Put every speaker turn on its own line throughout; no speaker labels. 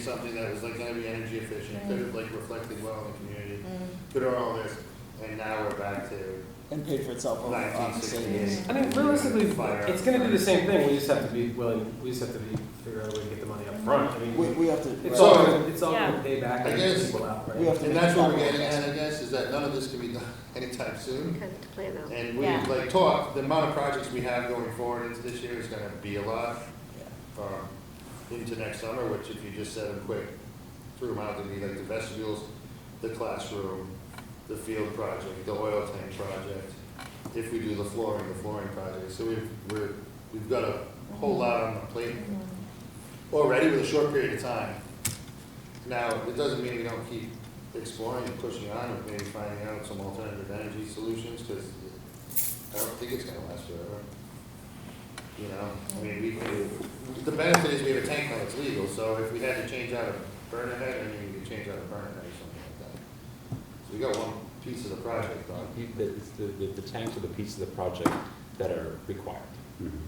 something that was like gonna be energy efficient, could have like reflected well on the community, could have all this, and now we're back to
and paid for itself over on
nineteen
savings.
sixty-eight.
Oh, I mean, realistically,
Fire.
it's gonna be the same thing, we just have to be willing, we just have to be, figure out a way to get the money up front. I
We,
mean,
we have to,
it's
So-
all,
right,
gonna- it's all gonna pay back
I
and
guess-
people out,
we
right?
have to.
And
make
that's what we're
capital
getting at, I
investment.
guess, is that none of this can be done anytime soon.
Kind of plan out.
And we,
Yeah.
like, talk, the amount of projects we have going forward into this year is gonna be a lot, um, into next summer, which if you just said them quick, threw them out, it'd be like the vestibules, the classroom, the field project, the oil tank project, if we do the flooring, the flooring project, so we've, we're, we've got a whole lot on the plate already with a short period of time. Now, it doesn't mean we don't keep exploring and pushing on and maybe finding out some alternative energy solutions, because I don't think it's gonna last forever. You know, I mean, we, the benefit is we have a tank that's legal, so if we had to change out a burner head, I mean, we could change out a burner head or something like that. So we got one piece of the project done.
You- The, it's the, the the tanks are the pieces of the project that are required.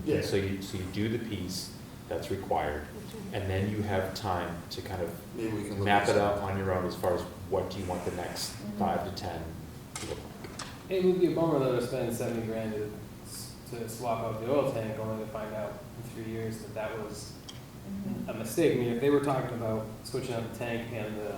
Yeah.
So you, so you do the piece that's required, and then you have time to kind of
Maybe we can look.
map
at
it out on your own as far as what do you want the next
Mm-hmm.
five to ten to look like.
It would be a bummer though to spend seventy grand to, s- to swap out the oil tank, only to find out in three years that that was a mistake. I mean, if they were talking about switching out the tank and the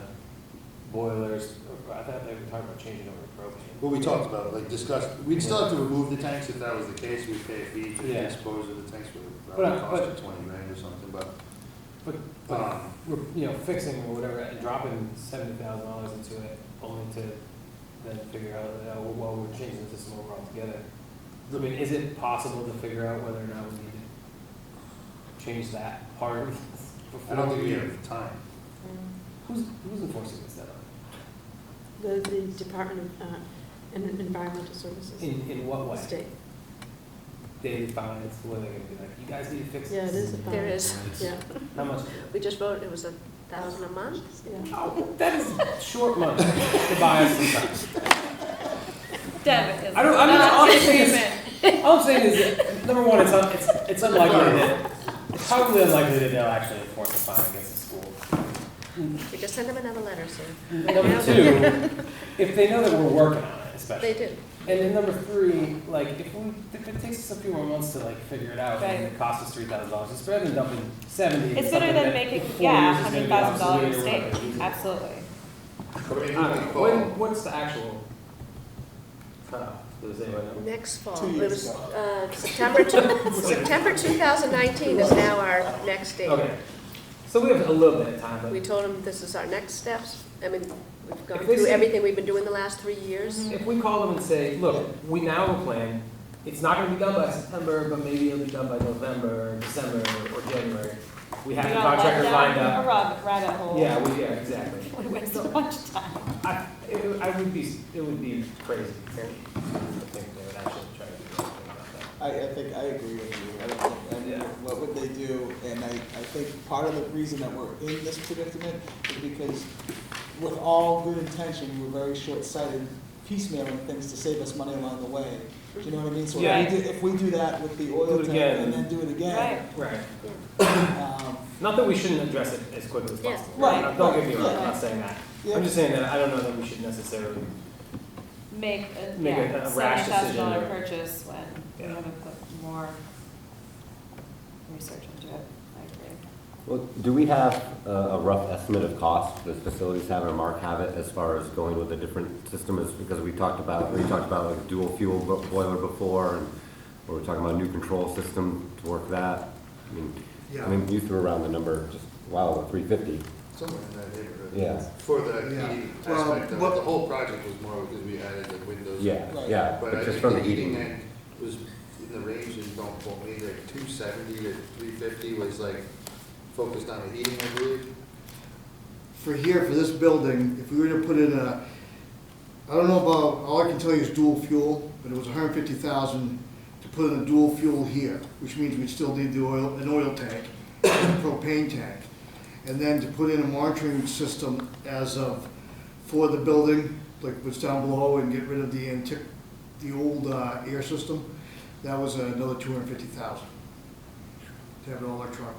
boilers, I thought they were talking about changing over to propane.
Well, we talked about, it, like discussed, we'd still have to remove the tanks if that was the case, we'd pay a fee to
Yeah.
dispose of the tanks, would
But,
probably
uh,
cost you twenty grand or something, but,
But,
Uh,
but
um,
we're, you know, fixing or whatever, and dropping seventy thousand dollars into it, only to then figure out, uh, well, we're changing the system over altogether. I mean, is it possible to figure out whether or not we need to change that part?
I don't think we have the time.
Who's, who's enforcing this then?
The, the Department of, uh, En- Environmental Services,
In, in what
the
way?
state.
They find it's where they're gonna be like, you guys need to fix
Yeah,
this.
it is a fine.
There is,
Yeah,
How much?
we just voted, it was a thousand a month?
yeah.
Oh, that is short money to buy us some time.
Deb is
I don't- I mean,
Uh,
not
honestly,
in
it's-
agreement.
All I'm saying is, that, number one, it's, un- it's, it's unlikely that, it's probably unlikely that they'll actually enforce a fine against the school.
We just send them another letter, so
Number two, if they know that we're working on it,
they
especially.
do.
And then number three, like, if we, if it takes us a few more months to like figure it out, and it costs us three thousand dollars, it's better than dumping seventy. into
It's better
something
than
that
making,
in four
yeah,
years
hundred
is gonna be
thousand dollar
obsolete or
mistake,
whatever.
absolutely.
But I mean,
I
we
don't
can
know, when,
call-
what's the actual cutoff, does anybody know?
Next fall,
Two
it
years
was,
ago.
uh, September two, September two thousand nineteen is now our next date.
Okay, so we have a little bit of time,
We
but
told them this is our next steps, I mean, we've gone
If they
through
say-
everything we've been doing the last three years.
if we call them and say, look, we now have a plan, it's not gonna be done by September, but maybe it'll be done by November, or December, or January. We have
We
the
got let
contractor
down
lined up.
A rabbit, rabbit hole.
Yeah, we, yeah, exactly.
We wasted a bunch of time.
I, it would, I would be, it would be crazy to think they would actually try to do something about that.
I, I think, I agree with you, I don't think, I mean,
Yeah.
what would they do? And I, I think part of the reason that we're in this predicament is because with all good intention, we're very short-sighted piecemealing things to save us money along the way. Do you know what I mean? So
Yeah.
if we do, if we do that with the
Do
oil
it
tank
again.
and then do it
Right.
again,
Right.
um,
Not that we shouldn't address it as quickly as
Yeah.
possible.
Right,
Don't- Don't get me wrong, I'm
right,
not saying that.
yeah,
I'm just saying that I don't know that we should necessarily
Make a,
Make a-
yeah,
a rash
seventy thousand dollar
decision.
purchase when we
Yeah.
would have put more research into it, I agree.
Well, do we have a a rough estimate of cost, does facilities have or Mark have it as far as going with a different system is, because we talked about, we talked about like dual fuel bo- boiler before, and we were talking about a new control system to work that. I mean, I mean, you threw around the number just, wow, three fifty,
somewhere in that neighborhood.
Yeah.
For the
Yeah.
heating
Well,
aspect of it,
what-
the whole project was more because we added the windows.
yeah,
Right.
yeah,
But
but
I
just
think
from
the
the
heating
heating.
end was in the range, and don't quote me, like two seventy to three fifty was like focused on the heating, I believe.
for here, for this building, if we were to put in a, I don't know about, all I can tell you is dual fuel, but it was hundred and fifty thousand to put in a dual fuel here, which means we'd still need the oil, an oil tank, a propane tank. And then to put in a monitoring system as of, for the building, like what's down below, and get rid of the antique, the old, uh, air system, that was another two hundred and fifty thousand. To have it all electronic